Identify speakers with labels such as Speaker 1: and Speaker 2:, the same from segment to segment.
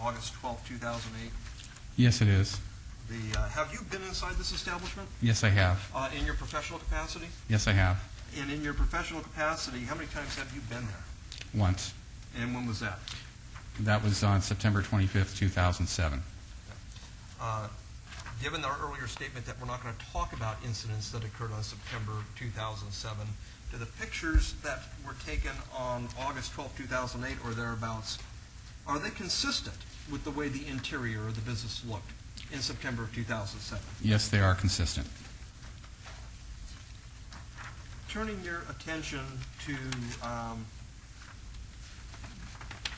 Speaker 1: August twelfth, two 2008.
Speaker 2: Yes, it is.
Speaker 1: The, uh, have you been inside this establishment
Speaker 2: Yes, I have.
Speaker 1: uh, in your professional capacity?
Speaker 2: Yes, I have.
Speaker 1: And in your professional capacity, how many times have you been there?
Speaker 2: Once.
Speaker 1: And when was that?
Speaker 2: That was on September 25th, 2007.
Speaker 1: Uh, Given our earlier statement that we're not going to talk about incidents that occurred on September 2007, do the pictures that were taken on August 12, 2008 or thereabouts, are they consistent with the way the interior of the business looked in September of 2007?
Speaker 2: Yes, they are consistent.
Speaker 1: Turning your attention to, um,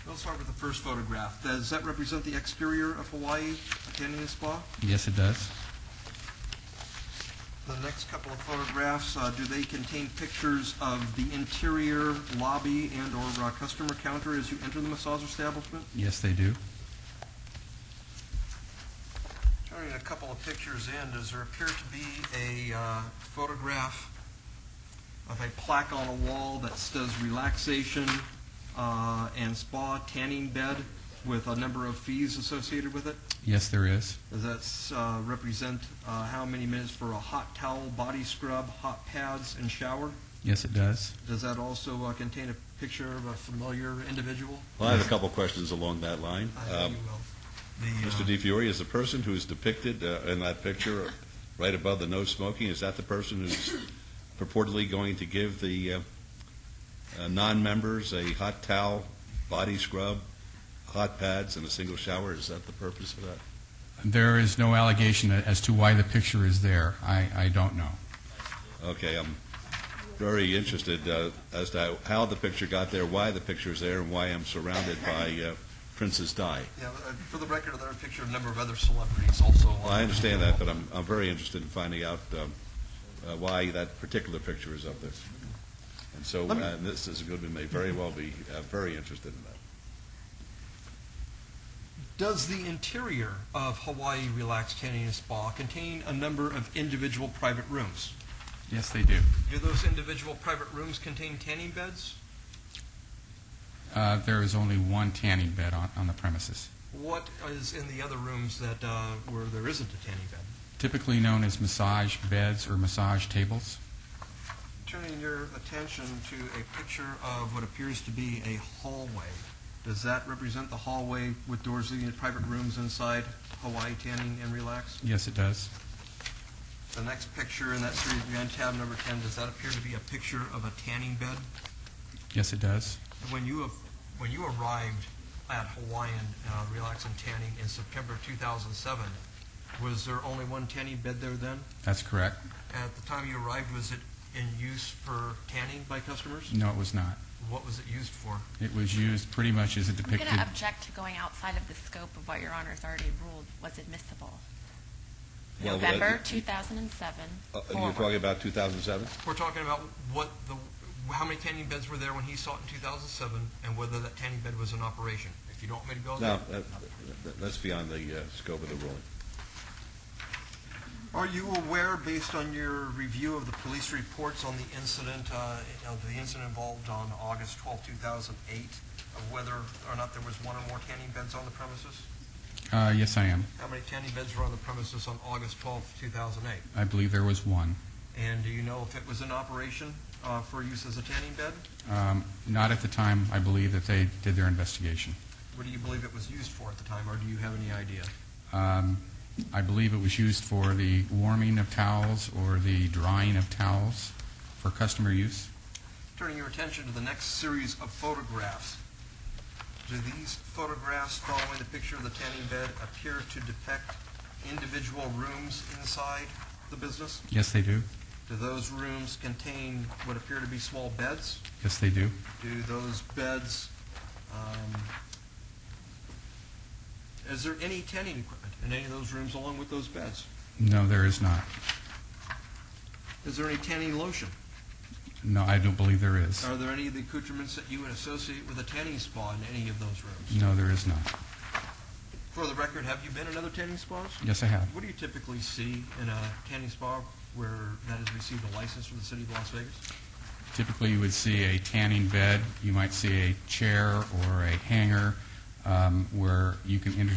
Speaker 1: let's start with the first photograph. Does that represent the exterior of Hawaii, Canyon Spa?
Speaker 2: Yes, it does.
Speaker 1: The next couple of photographs, uh, do they contain pictures of the interior lobby and/or uh, customer counter as you enter the massage establishment?
Speaker 2: Yes, they do.
Speaker 1: Turning a couple of pictures in, does there appear to be a uh, photograph of a plaque on a wall that says relaxation uh, and spa tanning bed with a number of fees associated with it?
Speaker 2: Yes, there is.
Speaker 1: Does that uh, represent uh, how many minutes for a hot towel, body scrub, hot pads, and shower?
Speaker 2: Yes, it does.
Speaker 1: Does that also uh, contain a picture of a familiar individual?
Speaker 3: Well, I have a couple of questions along that line.
Speaker 1: I know
Speaker 3: Um,
Speaker 1: you will. The, uh,
Speaker 3: Mr. DiFiore, is the person who's depicted uh, in that picture right above the no smoking, is that the person who's purportedly going to give the uh, uh, non-members a hot towel, body scrub, hot pads, and a single shower? Is that the purpose of that?
Speaker 2: There is no allegation as to why the picture is there. I, I don't know.
Speaker 3: Okay, I'm very interested uh, as to how the picture got there, why the picture's there, and why I'm surrounded by uh, Princess Di.
Speaker 1: Yeah, uh, for the record, there are a picture of a number of other celebrities also.
Speaker 3: Well, I understand that, but I'm, I'm very interested in finding out um, uh, why that particular picture is up there. And so,
Speaker 1: Let me-
Speaker 3: uh, this is good, we may very well be uh, very interested in that.
Speaker 1: Does the interior of Hawaii Relax Tanning and Spa contain a number of individual private rooms?
Speaker 2: Yes, they do.
Speaker 1: Do those individual private rooms contain tanning beds?
Speaker 2: Uh, there is only one tanning bed on, on the premises,
Speaker 1: What is in the other rooms that, uh, where there isn't a tanning bed?
Speaker 2: typically known as massage beds or massage tables.
Speaker 1: Turning your attention to a picture of what appears to be a hallway. Does that represent the hallway with doors leading to private rooms inside Hawaii Tanning and Relax?
Speaker 2: Yes, it does.
Speaker 1: The next picture in that series behind tab number 10, does that appear to be a picture of a tanning bed?
Speaker 2: Yes, it does.
Speaker 1: When you, have- when you arrived at Hawaiian uh, Relax and Tanning in September 2007, was there only one tanning bed there then?
Speaker 2: That's correct.
Speaker 1: At the time you arrived, was it in use for tanning by customers?
Speaker 2: No, it was not.
Speaker 1: What was it used for?
Speaker 2: It was used pretty much as it
Speaker 4: I'm
Speaker 2: depicted.
Speaker 4: going to object to going outside of the scope of what Your Honor's already ruled was admissible.
Speaker 3: Well,
Speaker 4: November
Speaker 3: uh,
Speaker 4: 2007
Speaker 3: Uh, You're
Speaker 4: forward.
Speaker 3: talking about 2007?
Speaker 1: We're talking about what the, how many tanning beds were there when he saw it in 2007, and whether that tanning bed was in operation. If you don't want me to go
Speaker 3: No,
Speaker 1: there.
Speaker 3: that- that- that's beyond the uh, scope of the ruling.
Speaker 1: Are you aware, based on your review of the police reports on the incident, uh, of the incident involved on August 12, 2008, of whether or not there was one or more tanning beds on the premises?
Speaker 2: Uh, yes, I am.
Speaker 1: How many tanning beds were on the premises on August 12, 2008?
Speaker 2: I believe there was one.
Speaker 1: And do you know if it was in operation uh, for use as a tanning bed?
Speaker 2: Um, not at the time, I believe, that they did their investigation.
Speaker 1: What do you believe it was used for at the time, or do you have any idea?
Speaker 2: Um, I believe it was used for the warming of towels or the drying of towels for customer use.
Speaker 1: Turning your attention to the next series of photographs. Do these photographs following the picture of the tanning bed appear to depict individual rooms inside the business?
Speaker 2: Yes, they do.
Speaker 1: Do those rooms contain what appear to be small beds?
Speaker 2: Yes, they do.
Speaker 1: Do those beds, um, is there any tanning equipment in any of those rooms along with those beds?
Speaker 2: No, there is not.
Speaker 1: Is there any tanning lotion?
Speaker 2: No, I don't believe there is.
Speaker 1: Are there any of the accoutrements that you would associate with a tanning spa in any of those rooms?
Speaker 2: No, there is not.
Speaker 1: For the record, have you been in other tanning spas?
Speaker 2: Yes, I have.
Speaker 1: What do you typically see in a tanning spa where that has received a license from the city of Las Vegas?
Speaker 2: Typically, you would see a tanning bed, you might see a chair or a hanger, uh, um, where you can enter